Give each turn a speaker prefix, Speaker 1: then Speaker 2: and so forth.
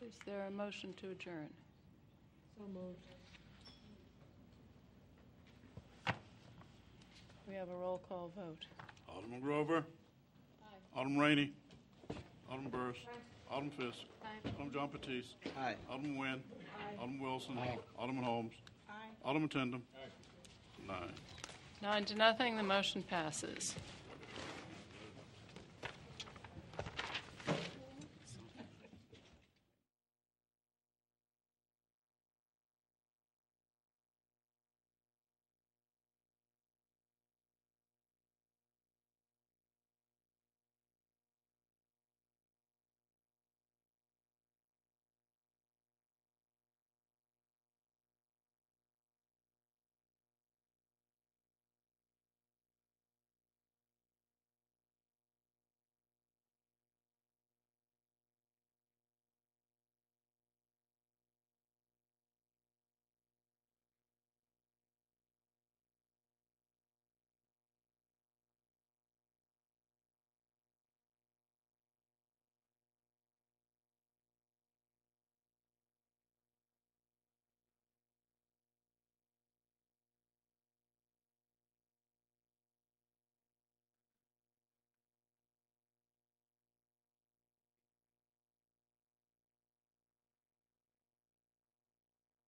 Speaker 1: Is there a motion to adjourn?
Speaker 2: So moved.
Speaker 1: We have a roll call vote.
Speaker 3: Alderman Grover. Alderman Rainey. Alderman Burris. Alderman Fisk. Alderman John Batiste.
Speaker 4: Aye.
Speaker 3: Alderman Nguyen. Alderman Wilson. Alderman Holmes.
Speaker 2: Aye.
Speaker 3: Alderman Tindem. Nine.
Speaker 1: Nine to nothing, the motion passes.